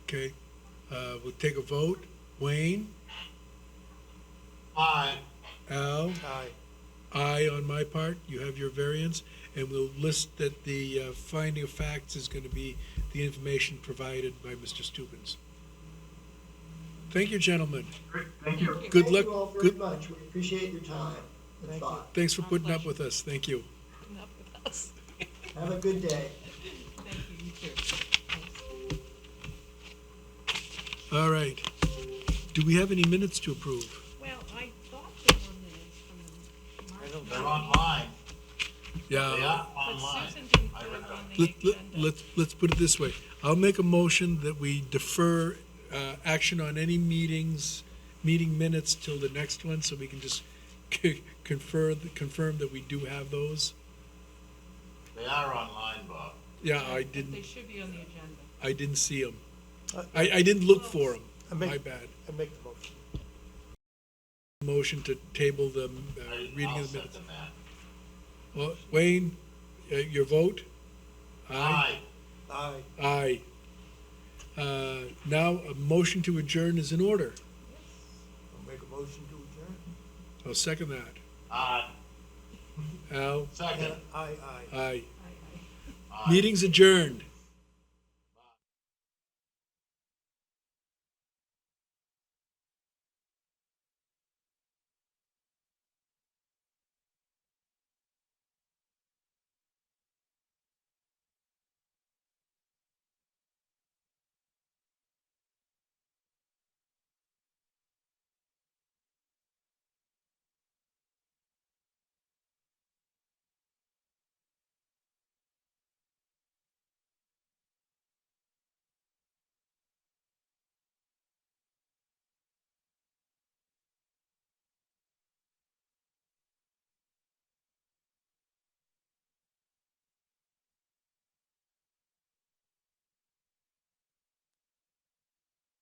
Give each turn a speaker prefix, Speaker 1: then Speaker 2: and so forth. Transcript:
Speaker 1: Okay, uh, we'll take a vote. Wayne?
Speaker 2: Aye.
Speaker 1: Al?
Speaker 2: Aye.
Speaker 1: Aye on my part, you have your variance, and we'll list that the uh, finding of facts is going to be the information provided by Mr. Stubens. Thank you, gentlemen.
Speaker 2: Great, thank you.
Speaker 1: Good
Speaker 3: Thank
Speaker 1: luck.
Speaker 3: you all very
Speaker 1: Good,
Speaker 3: much. We appreciate your time and
Speaker 2: Thank
Speaker 3: thought.
Speaker 1: thanks for
Speaker 4: Our
Speaker 1: putting up
Speaker 4: pleasure.
Speaker 1: with us. Thank you.
Speaker 4: putting up with us.
Speaker 3: Have a good day.
Speaker 4: Thank you, you too. Thanks.
Speaker 1: All right. Do we have any minutes to approve?
Speaker 4: Well, I thought there were minutes from the March.
Speaker 2: They're online. They
Speaker 1: Yeah.
Speaker 2: are
Speaker 4: But
Speaker 2: online.
Speaker 4: Susan didn't put
Speaker 2: I read
Speaker 4: it on the
Speaker 1: Let, let,
Speaker 4: agenda.
Speaker 1: let's, let's put it this way. I'll make a motion that we defer uh, action on any meetings, meeting minutes till the next one, so we can just c- confer, confirm that we do have those.
Speaker 2: They are online, Bob.
Speaker 1: Yeah, I
Speaker 4: But They
Speaker 1: didn't,
Speaker 4: should be on the agenda.
Speaker 1: I didn't see them. I, I didn't look for them.
Speaker 5: I
Speaker 1: My
Speaker 5: make,
Speaker 1: bad.
Speaker 5: I make the motion.
Speaker 1: Motion to table the uh,
Speaker 2: I-
Speaker 1: reading
Speaker 2: I'll
Speaker 1: of the minutes.
Speaker 2: second that.
Speaker 1: Well, Wayne, uh, your vote?
Speaker 2: Aye.
Speaker 5: Aye.
Speaker 1: Aye. Uh, Now, a motion to adjourn is in order.
Speaker 5: I'll make a motion to adjourn.
Speaker 1: I'll second that.
Speaker 2: Aye.
Speaker 1: Al?
Speaker 2: Second.
Speaker 5: Aye, aye.
Speaker 1: Aye.
Speaker 4: I- I-
Speaker 1: Meeting's adjourned.